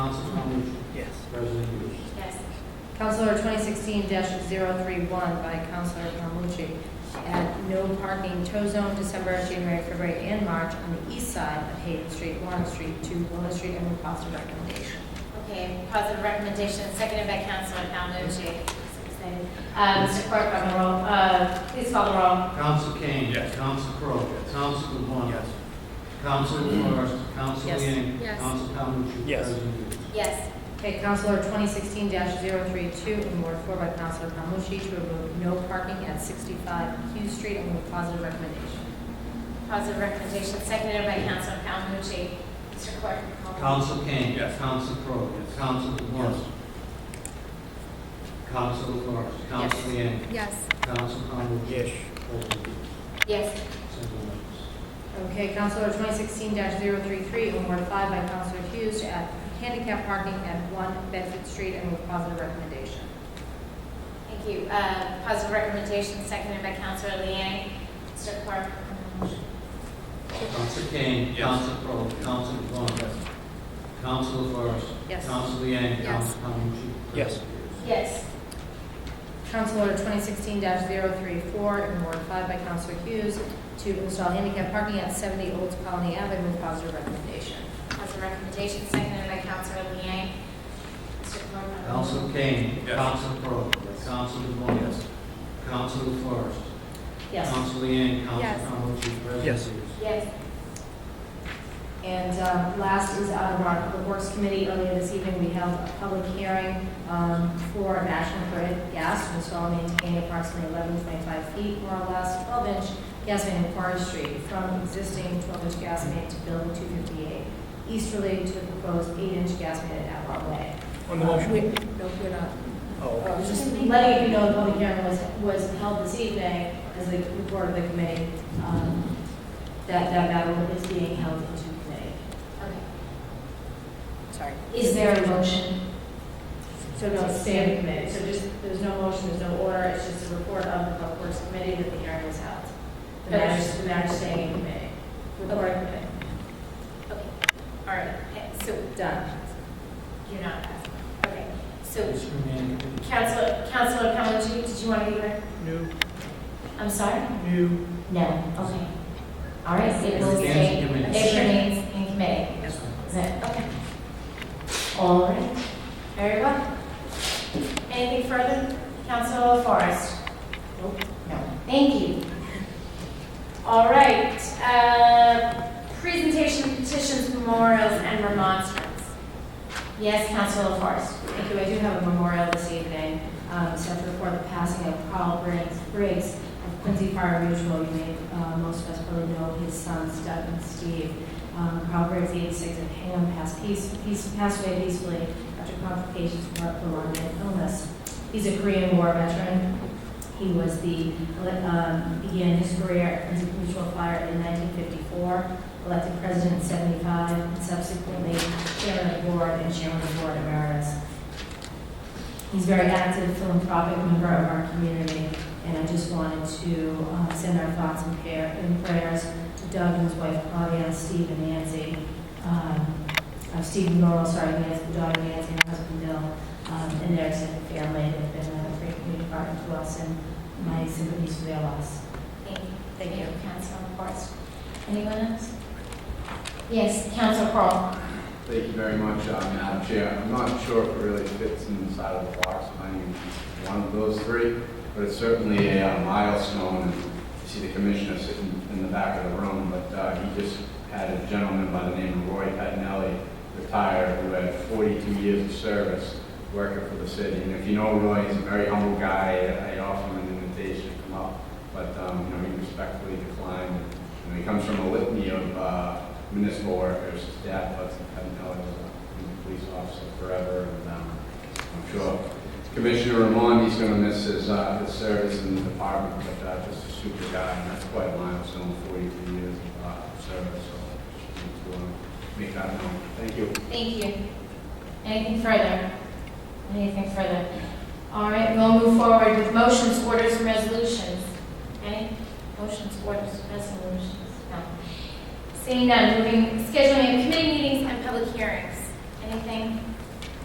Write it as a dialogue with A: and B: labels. A: Counselor 2016-031 by Counselor Palmucci. Add no parking tow zone December, January, February, and March on the east side of Hayden Street, Warren Street, to Willow Street, and with positive recommendation.
B: Okay, positive recommendation, seconded by Councilor Calmucci. So excited. Uh, Mr. Clerk, on the roll, uh, please call the roll.
C: Counsel Kane.
D: Yes.
C: Counsel Crowe. Yes. Counsel LeBlanc. Yes. Counsel LaFors. Counsel
A: Yes.
C: Yang.
B: Yes.
C: Counsel Calhoun.
D: Yes.
C: President Hughes.
B: Yes.
A: Okay, Counselor 2016-032 in Ward 4 by Counselor Palmucci to remove no parking at 65 Hughes Street, and with positive recommendation.
B: Positive recommendation, seconded by Councilor Calmucci. Mr. Clerk, call the roll.
C: Counsel Kane.
D: Yes.
C: Counsel Crowe. Yes. Counsel LeBlanc. Counsel LaFors. Counsel Yang.
A: Yes.
C: Counsel Calhoun. Yes. President Hughes.
B: Yes.
C: Seven ayes.
A: Okay, Counselor 2016-033 in Ward 5 by Counselor Hughes to add handicap parking at 1 Bedford Street, and with positive recommendation.
B: Thank you. Uh, Positive recommendation, seconded by Councilor Liang. Mr. Clerk, call the roll.
C: Counsel Kane.
D: Yes.
C: Counsel Crowe. Counsel LeBlanc. Yes. Counsel LaFors.
A: Yes.
C: Counsel Yang.
A: Yes.
C: Counsel Calhoun.
D: Yes.
B: Yes.
A: Counselor 2016-034 in Ward 5 by Counselor Hughes to install handicap parking at 70 Old Colony Avenue with positive recommendation.
B: Positive recommendation, seconded by Councilor Liang. Mr. Clerk, call the roll.
C: Counsel Kane.
D: Yes.
C: Counsel Crowe. Counsel LeBlanc. Yes. Counsel LaFors.
A: Yes.
C: Counsel Leeang,
A: Yes.
C: Counsel Calhoun, President
D: Yes.
C: Hughes.
B: Yes.
A: And um, last is out of our Public Works Committee. Earlier this evening, we held a public hearing um, for an action for gas to install and maintain approximately 1125 feet or less 12-inch gas main at Forest Street from existing 12-inch gas main to building 258 easterly to the proposed 8-inch gas main at Outlaw Way.
D: On the motion?
A: Uh, we- No, we're not.
D: Oh.
A: I was just letting you know the public hearing was, was held this evening as the report of the committee, um, that, that matter is being held into committee.
B: Okay.
A: Sorry.
B: Is there a motion?
A: So no, it's stay in committee, so just, there's no motion, there's no order, it's just a report of the public works committee that the hearing was held. The matter, the matter staying in committee, report of committee,
B: Okay. All right. Okay, So
A: done.
B: You're not passing. Okay, so
C: Mr. Manning.
B: Councilor, Councilor Calhoun, did you want to be heard?
D: New.
B: I'm sorry?
D: New.
B: No, okay. All right, so it will
C: It
B: stay,
C: stands in
B: it
C: committee.
B: remains in committee. Is it? Okay. All right, very well. Anything further? Councilor Forrest? Nope. No, thank you. All right, uh, presentation, petitions, memorials, and remonstrance. Yes, Councilor Forrest?
A: Thank you, I do have a memorial this evening, um, set to record the passing of Carl Briggs, Briggs of Quincy Fire Mutual. You may, uh, most of us probably know his sons Doug and Steve. Um, Carl Briggs, eighty-six, of Hingham, passed peace, peace, passed away peacefully after complications from a prolonged illness. He's a Korean War veteran. He was the, um, began his career at Quincy Mutual Fire in nineteen fifty-four, elected president in seventy-five, and subsequently chairman of the board and chairman of the board emeritus. He's a very active philanthropic member of our community, and I just wanted to uh, send our thoughts and prayer- and prayers to Doug and his wife Claudia, Steve and Nancy, um, uh, Steve and Laurel, sorry, Nancy, the daughter Nancy, and husband Bill, um, and their extended family. They've been a great community partner to us, and my sympathies for their loss.
B: Thank you.
A: Thank you.
B: Councilor Forrest. Anyone else? Yes, Councilor Crowell.
E: Thank you very much, uh, Madam Chair. I'm not sure if it really fits inside of the box, if I'm even one of those three, but it's certainly a uh, milestone. And You see the commissioner sitting in the back of the room, but uh, he just had a gentleman by the name of Roy Pettinelli retire, who had 42 years of service working for the city. And if you know Roy, he's a very humble guy. I I offer him an invitation to come up, but, um, you know, he respectfully declined. And he comes from a litany of uh, municipal workers. His dad was, I didn't know, he was a police officer forever, and um, I'm sure Commissioner Ramon, he's gonna miss his, uh, his service in the department, but uh, just a super guy, and that's quite a milestone, 42 years of uh, service, so just need to uh, make that known. Thank you.
B: Thank you. Anything further? Anything further? All right, we'll move forward with motions, orders, and resolutions. Any motions, orders, resolutions? No. Seeing none, moving, scheduling of committee meetings and public hearings. Anything?